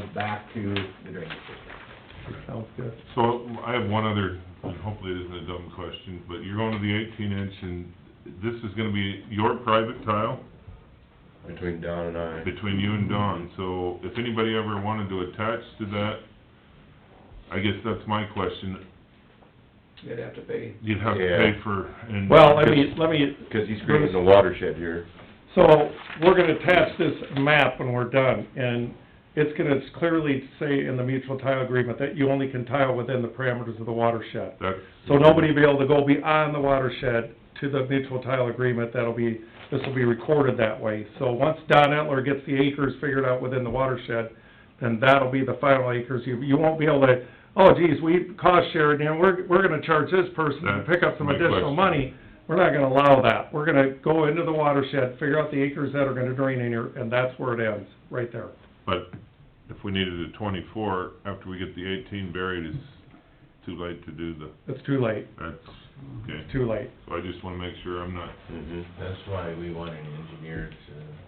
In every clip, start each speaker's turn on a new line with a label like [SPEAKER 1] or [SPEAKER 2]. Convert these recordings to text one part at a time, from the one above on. [SPEAKER 1] goes back to the drainage system.
[SPEAKER 2] Sounds good.
[SPEAKER 3] So I have one other, and hopefully it isn't a dumb question, but you're going to the eighteen inch and this is gonna be your private tile
[SPEAKER 4] between Don and I.
[SPEAKER 3] between you and Don. So if anybody ever wanted to attach to that, I guess that's my question.
[SPEAKER 1] You'd have to pay.
[SPEAKER 3] You'd have to
[SPEAKER 4] Yeah.
[SPEAKER 3] pay for and.
[SPEAKER 2] Well, let me, let me,
[SPEAKER 4] Cause he's creating a watershed here.
[SPEAKER 2] so we're gonna attach this map when we're done, and it's gonna clearly say in the mutual tile agreement that you only can tile within the parameters of the watershed.
[SPEAKER 3] That's.
[SPEAKER 2] So nobody will be able to go beyond the watershed to the mutual tile agreement, that'll be, this will be recorded that way. So once Don Etler gets the acres figured out within the watershed, then that'll be the final acres, you, you won't be able to, oh geez, we cost shared, and we're, we're gonna charge this person to pick up some
[SPEAKER 3] That's my
[SPEAKER 2] additional
[SPEAKER 3] question.
[SPEAKER 2] money. We're not gonna allow that, we're gonna go into the watershed, figure out the acres that are gonna drain in here, and that's where it ends, right there.
[SPEAKER 3] But if we needed a twenty-four, after we get the eighteen buried, it's too late to do the,
[SPEAKER 2] It's too late,
[SPEAKER 3] that's, okay.
[SPEAKER 2] too late.
[SPEAKER 3] So I just wanna make sure I'm not,
[SPEAKER 4] Mm-hmm.
[SPEAKER 5] That's why we want an engineer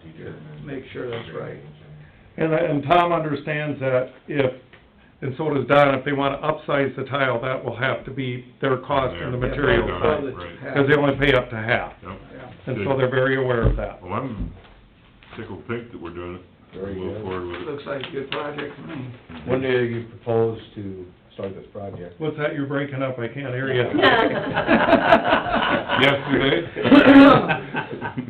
[SPEAKER 5] to determine.
[SPEAKER 1] Make sure that's right.
[SPEAKER 2] And, uh, and Tom understands that if, and so does Don, if they wanna upsize the tile, that will have to be their cost and the
[SPEAKER 3] Their-
[SPEAKER 2] material
[SPEAKER 3] their
[SPEAKER 2] side,
[SPEAKER 3] cost.
[SPEAKER 1] Well, it's
[SPEAKER 3] right.
[SPEAKER 1] half-
[SPEAKER 2] cause they only pay up to half.
[SPEAKER 3] yep.
[SPEAKER 1] yeah.
[SPEAKER 2] And so they're very aware of that.
[SPEAKER 3] Well, I'm tickled pink that we're doing it.
[SPEAKER 6] Very good.
[SPEAKER 3] We'll Move forward with it.
[SPEAKER 1] Looks like a good project to me.
[SPEAKER 6] When do you propose to start this project?
[SPEAKER 2] What's that, you're breaking up, I can't hear you.
[SPEAKER 3] Yesterday?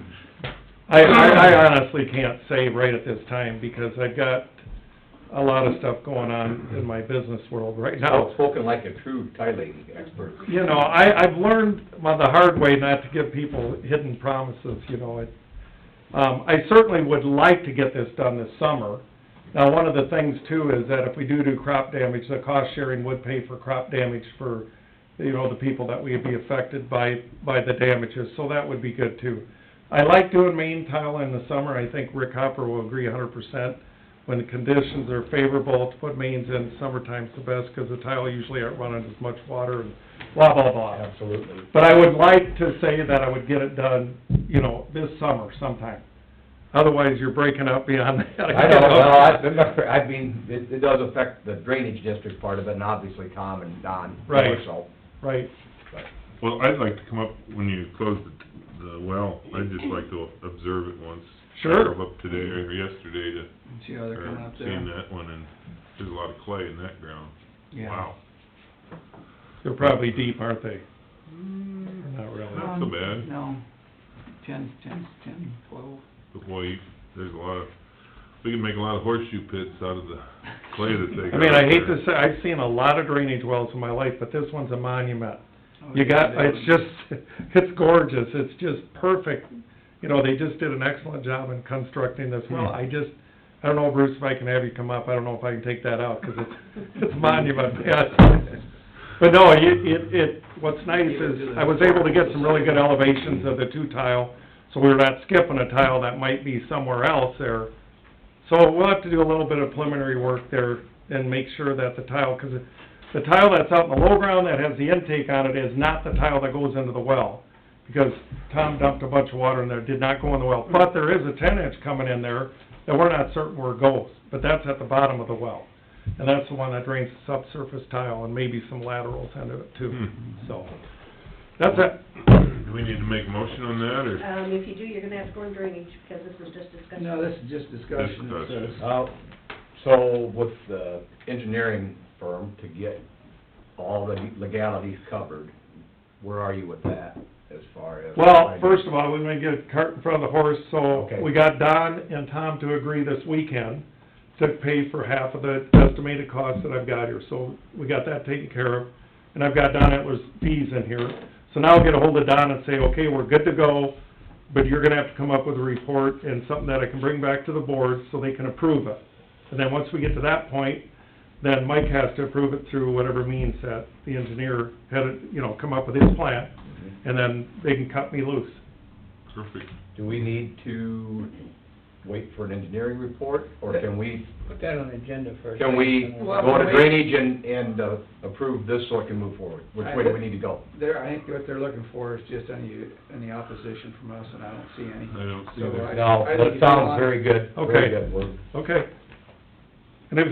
[SPEAKER 2] I, I, I honestly can't say right at this time, because I've got a lot of stuff going on in my business world right now.
[SPEAKER 1] Spoken like a true tiling expert.
[SPEAKER 2] you know, I, I've learned on the hard way not to give people hidden promises, you know, it, um, I certainly would like to get this done this summer. Now, one of the things too is that if we do do crop damage, the cost sharing would pay for crop damage for, you know, the people that would be affected by, by the damages, so that would be good too. I like doing main tile in the summer, I think Rick Hopper will agree a hundred percent. When the conditions are favorable to put mains in, summertime's the best, 'cause the tile usually aren't running as much water and blah, blah, blah.
[SPEAKER 6] Absolutely.
[SPEAKER 2] But I would like to say that I would get it done, you know, this summer sometime. Otherwise, you're breaking up beyond that.
[SPEAKER 6] I don't know,
[SPEAKER 1] I remember, I mean, it, it does affect the drainage district part of it, and obviously Tom and Don more
[SPEAKER 2] Right.
[SPEAKER 1] so.
[SPEAKER 2] Right,
[SPEAKER 3] Well, I'd like to come up when you close the, the well, I'd just like to observe it once.
[SPEAKER 2] Sure.
[SPEAKER 3] I drove up today or yesterday to,
[SPEAKER 1] See how they're coming
[SPEAKER 3] or
[SPEAKER 1] up
[SPEAKER 3] seen
[SPEAKER 1] there.
[SPEAKER 3] that one, and there's a lot of clay in that ground.
[SPEAKER 1] Yeah.
[SPEAKER 3] Wow,
[SPEAKER 2] they're probably deep, aren't they?
[SPEAKER 1] Mm,
[SPEAKER 2] Not really.
[SPEAKER 3] Not so bad.
[SPEAKER 1] No, ten, ten, ten, twelve.
[SPEAKER 3] but boy, you- there's a lot of, we can make a lot of horseshoe pits out of the clay that they
[SPEAKER 2] I
[SPEAKER 3] got
[SPEAKER 2] mean, I hate
[SPEAKER 3] there.
[SPEAKER 2] to say, I've seen a lot of drainage wells in my life, but this one's a monument. You got, it's just, it's gorgeous, it's just perfect. You know, they just did an excellent job in constructing this well. I just, I don't know, Bruce, if I can have you come up, I don't know if I can take that out, 'cause it's, it's monument, yeah. But no, it, it, it, what's nice is, I was able to get some really good elevations of the two tile, so we're not skipping a tile that might be somewhere else there. So we'll have to do a little bit of preliminary work there and make sure that the tile, 'cause it- the tile that's out in the low ground that has the intake on it is not the tile that goes into the well. Because Tom dumped a bunch of water in there, did not go in the well, but there is a ten inch coming in there that we're not certain where it goes, but that's at the bottom of the well. And that's the one that drains the subsurface tile and maybe some laterals into it too,
[SPEAKER 3] Hmm.
[SPEAKER 2] so. That's it.
[SPEAKER 3] Do we need to make a motion on that, or?
[SPEAKER 7] Um, if you do, you're gonna have to go in drainage, because this is just discussion.
[SPEAKER 1] No, this is just discussion, it
[SPEAKER 3] Discussion.
[SPEAKER 1] says.
[SPEAKER 6] Uh,
[SPEAKER 4] So with
[SPEAKER 5] The engineering firm to get all the legalities covered, where are you with that as far as?
[SPEAKER 2] Well, first of all, we may get a cart in front of the horse, so
[SPEAKER 5] Okay.
[SPEAKER 2] we got Don and Tom to agree this weekend to pay for half of the estimated cost that I've got here, so we got that taken care of. And I've got Don Etler's fees in here, so now I'll get ahold of Don and say, okay, we're good to go, but you're gonna have to come up with a report and something that I can bring back to the board so they can approve it. And then once we get to that point, then Mike has to approve it through whatever means that the engineer had, it, you know, come up with his plan, and then they can cut me loose.
[SPEAKER 3] Perfect.
[SPEAKER 5] Do we need to wait for an engineering report, or can we,
[SPEAKER 8] Put that on the agenda first.
[SPEAKER 5] can we
[SPEAKER 1] Well,
[SPEAKER 5] go to
[SPEAKER 1] wait.
[SPEAKER 5] drainage and, and uh, approve this so it can move forward? Which way do we need to go?
[SPEAKER 1] There, I think what they're looking for is just any, any opposition from us, and I don't see any.
[SPEAKER 3] I don't see
[SPEAKER 1] So
[SPEAKER 3] that.
[SPEAKER 1] I-
[SPEAKER 5] No,
[SPEAKER 1] I think
[SPEAKER 5] that
[SPEAKER 1] you
[SPEAKER 5] sounds
[SPEAKER 1] want-
[SPEAKER 5] very good,
[SPEAKER 2] Okay.
[SPEAKER 5] very good. We're-
[SPEAKER 2] Okay. And if